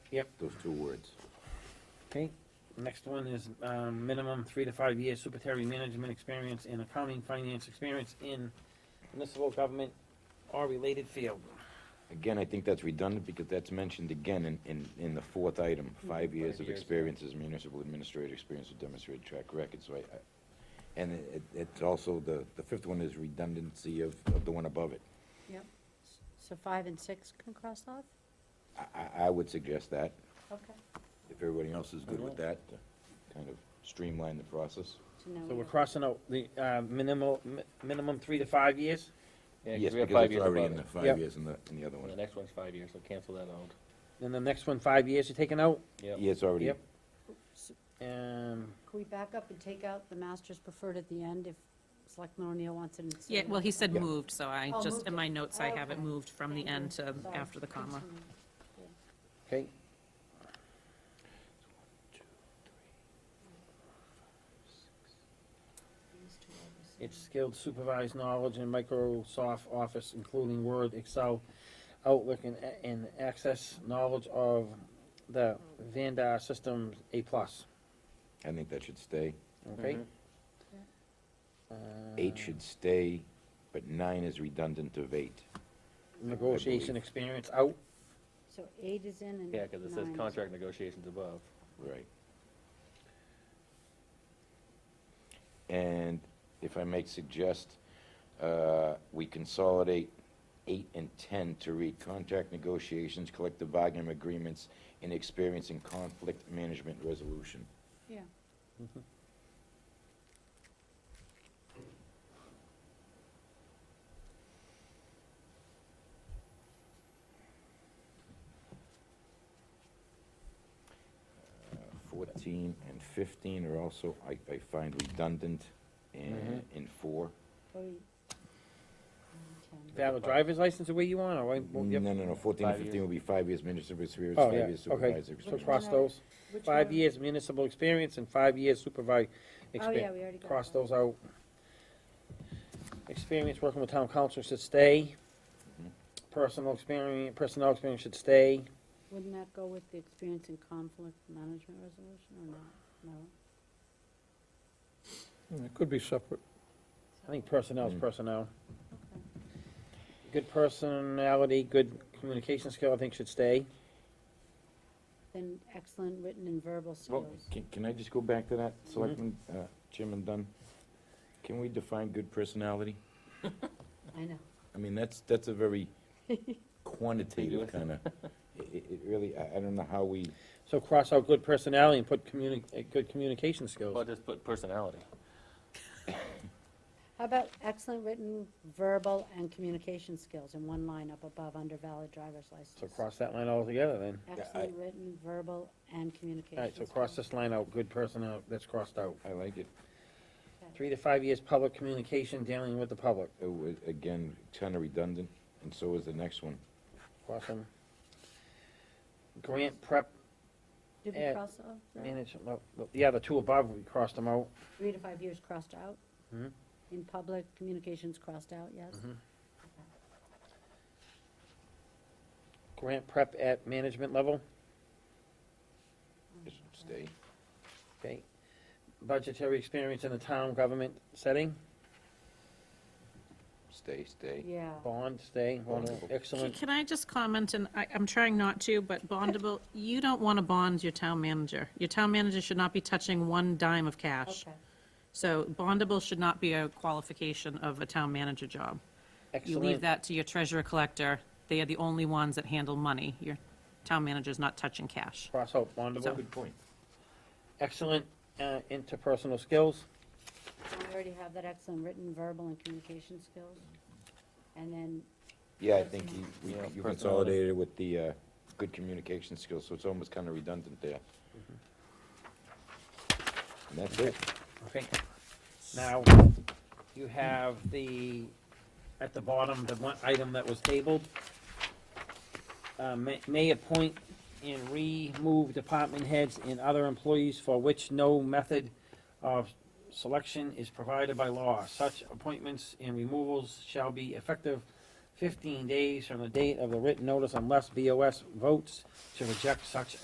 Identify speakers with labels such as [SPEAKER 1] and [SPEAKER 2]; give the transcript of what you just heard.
[SPEAKER 1] Yep.
[SPEAKER 2] Those two words.
[SPEAKER 1] Okay, next one is, um, minimum three to five years supervisory management experience and accounting finance experience in municipal government or related field.
[SPEAKER 2] Again, I think that's redundant because that's mentioned again in, in, in the fourth item, five years
[SPEAKER 3] Mm-hmm. Five
[SPEAKER 2] of
[SPEAKER 3] years, yeah.
[SPEAKER 2] experience as municipal administrator, experience with demonstrated track record, so I, I- and it, it- it's also, the, the fifth one is redundancy of, of the one above it.
[SPEAKER 4] Yep. So five and six can cross off?
[SPEAKER 2] I, I, I would suggest that,
[SPEAKER 4] Okay.
[SPEAKER 2] if everybody else is good with that, to kind of streamline the process.
[SPEAKER 4] So now
[SPEAKER 1] So
[SPEAKER 4] we
[SPEAKER 1] we're
[SPEAKER 4] have-
[SPEAKER 1] crossing out the, uh, minimal, mi- minimum three to five years?
[SPEAKER 3] Yeah,
[SPEAKER 2] Yes,
[SPEAKER 3] we have
[SPEAKER 2] because
[SPEAKER 3] five
[SPEAKER 2] it's
[SPEAKER 3] years
[SPEAKER 2] already
[SPEAKER 3] above
[SPEAKER 2] in the
[SPEAKER 3] it.
[SPEAKER 2] five
[SPEAKER 1] Yep.
[SPEAKER 2] years in the, in the other
[SPEAKER 3] And The
[SPEAKER 2] one.
[SPEAKER 3] next one's five years, so cancel that out.
[SPEAKER 1] Then the next one, five years you're taking out?
[SPEAKER 3] Yep,
[SPEAKER 2] Yeah, it's already,
[SPEAKER 1] Yep. Um,
[SPEAKER 4] Can we back up and take out the master's preferred at the end if Selectman O'Neill wants it inserted?
[SPEAKER 5] Yeah, well, he said
[SPEAKER 2] Yeah.
[SPEAKER 5] moved, so I
[SPEAKER 4] Oh,
[SPEAKER 5] just,
[SPEAKER 4] moved
[SPEAKER 5] in
[SPEAKER 4] it.
[SPEAKER 5] my notes, I have it
[SPEAKER 4] Okay.
[SPEAKER 5] moved from the
[SPEAKER 4] Thank you.
[SPEAKER 5] end to
[SPEAKER 4] Sorry.
[SPEAKER 5] after the comma.
[SPEAKER 4] Continue.
[SPEAKER 1] okay, it's skilled supervised knowledge in Microsoft Office, including Word, Excel, Outlook, and, and access knowledge of the Vanda system A plus,
[SPEAKER 2] I think that should stay.
[SPEAKER 1] okay?
[SPEAKER 3] Mhm.
[SPEAKER 2] Eight
[SPEAKER 1] Uh,
[SPEAKER 3] Uh-huh.
[SPEAKER 2] should stay, but nine is redundant of eight.
[SPEAKER 1] Negotiation experience out,
[SPEAKER 4] So eight is in and
[SPEAKER 3] yeah, because it says
[SPEAKER 4] nine is-
[SPEAKER 3] contract negotiations above.
[SPEAKER 2] Right. And if I may suggest, uh, we consolidate eight and 10 to read contract negotiations, collective bargaining agreements, and experience in conflict management resolution.
[SPEAKER 4] Yeah.
[SPEAKER 2] Uh, 14 and 15 are also, I I find redundant in
[SPEAKER 1] Mm-hmm.
[SPEAKER 2] in four.
[SPEAKER 4] Oh, you- nine, 10.
[SPEAKER 1] valid driver's license the way you want, or what?
[SPEAKER 2] No, no, no, 14 and
[SPEAKER 3] Five
[SPEAKER 2] 15
[SPEAKER 3] years.
[SPEAKER 2] will be five years municipal experience,
[SPEAKER 1] Oh,
[SPEAKER 2] five
[SPEAKER 1] yeah,
[SPEAKER 2] years
[SPEAKER 1] okay.
[SPEAKER 2] supervisor
[SPEAKER 1] So
[SPEAKER 2] experience.
[SPEAKER 1] cross those,
[SPEAKER 4] Which
[SPEAKER 1] five
[SPEAKER 4] one?
[SPEAKER 1] years municipal experience and five years supervised
[SPEAKER 4] Oh, yeah,
[SPEAKER 1] experience.
[SPEAKER 4] we already got
[SPEAKER 1] Cross
[SPEAKER 4] that.
[SPEAKER 1] those out. Experience working with town council should stay.
[SPEAKER 2] Mhm.
[SPEAKER 1] Personal experience, personnel experience should stay.
[SPEAKER 4] Wouldn't that go with the experience in conflict management resolution or not? No?
[SPEAKER 6] Hmm, It could be separate.
[SPEAKER 1] I think personnel is
[SPEAKER 2] Mm.
[SPEAKER 1] personnel.
[SPEAKER 4] Okay.
[SPEAKER 1] Good personality, good communication skill, I think should stay.
[SPEAKER 4] Then excellent written and verbal
[SPEAKER 2] Well,
[SPEAKER 4] skills.
[SPEAKER 2] can, can I just go back to that, Selectman,
[SPEAKER 3] Mm-hmm.
[SPEAKER 2] uh, Chairman Dunn? Can we define good personality?
[SPEAKER 4] I know.
[SPEAKER 2] I mean, that's, that's a very
[SPEAKER 3] Ambiguous.
[SPEAKER 2] quantitative kind of, it, it really, I, I don't know how we,
[SPEAKER 1] So cross out good personality and put communi, uh, good communication
[SPEAKER 3] Well,
[SPEAKER 1] skills.
[SPEAKER 3] just put personality.
[SPEAKER 4] How about excellent written, verbal, and communication skills in one line up above under valid driver's license?
[SPEAKER 1] So cross that line altogether then.
[SPEAKER 4] Excellent written, verbal, and communication.
[SPEAKER 1] All right, so cross
[SPEAKER 4] skills.
[SPEAKER 1] this line out, good personnel, that's crossed out.
[SPEAKER 2] I like it.
[SPEAKER 4] Okay.
[SPEAKER 1] Three to five years public communication, dealing with the public.
[SPEAKER 2] It was, uh, again, kind of redundant, and so is the next one.
[SPEAKER 1] Cross them. Grant prep
[SPEAKER 4] Did
[SPEAKER 1] eh,
[SPEAKER 4] we cross off? that?
[SPEAKER 1] management, well, well, yeah, the two above, we crossed them out.
[SPEAKER 4] Three to five years crossed out?
[SPEAKER 1] Mhm.
[SPEAKER 4] In public, communications crossed out, yes?
[SPEAKER 1] Mm-hmm. Grant prep at management level,
[SPEAKER 3] Mm-hmm.
[SPEAKER 2] It should stay.
[SPEAKER 1] okay. Budgetary experience in the town government setting,
[SPEAKER 2] Stay, stay.
[SPEAKER 4] Yeah.
[SPEAKER 1] bond, stay, bond,
[SPEAKER 5] Can-
[SPEAKER 1] excellent.
[SPEAKER 5] Can I just comment, and I, I'm trying not to, but bondable, you don't want to bond your town manager. Your town manager should not be touching one dime of cash.
[SPEAKER 4] Okay.
[SPEAKER 5] So bondable should not be a qualification of a town manager job. You leave
[SPEAKER 1] Excellent.
[SPEAKER 5] that to your treasurer collector. They are the only ones that handle money. Your town manager's not touching cash.
[SPEAKER 1] Cross out bondable.
[SPEAKER 2] Good point.
[SPEAKER 1] Excellent, uh, interpersonal skills,
[SPEAKER 4] We already have that excellent written, verbal, and communication skills. And then,
[SPEAKER 2] Yeah, I think you, we-
[SPEAKER 3] Yeah,
[SPEAKER 2] you
[SPEAKER 3] personality.
[SPEAKER 2] consolidated it with the, uh, good communication skills, so it's almost kind of redundant there. And
[SPEAKER 3] Mm-hmm.
[SPEAKER 2] that's it.
[SPEAKER 1] okay. Now, you have the, at the bottom, the one item that was tabled. Uh, may, may appoint and remove department heads and other employees for which no method of selection is provided by law. Such appointments and removals shall be effective fifteen days from the date of the written notice unless BOS votes to reject such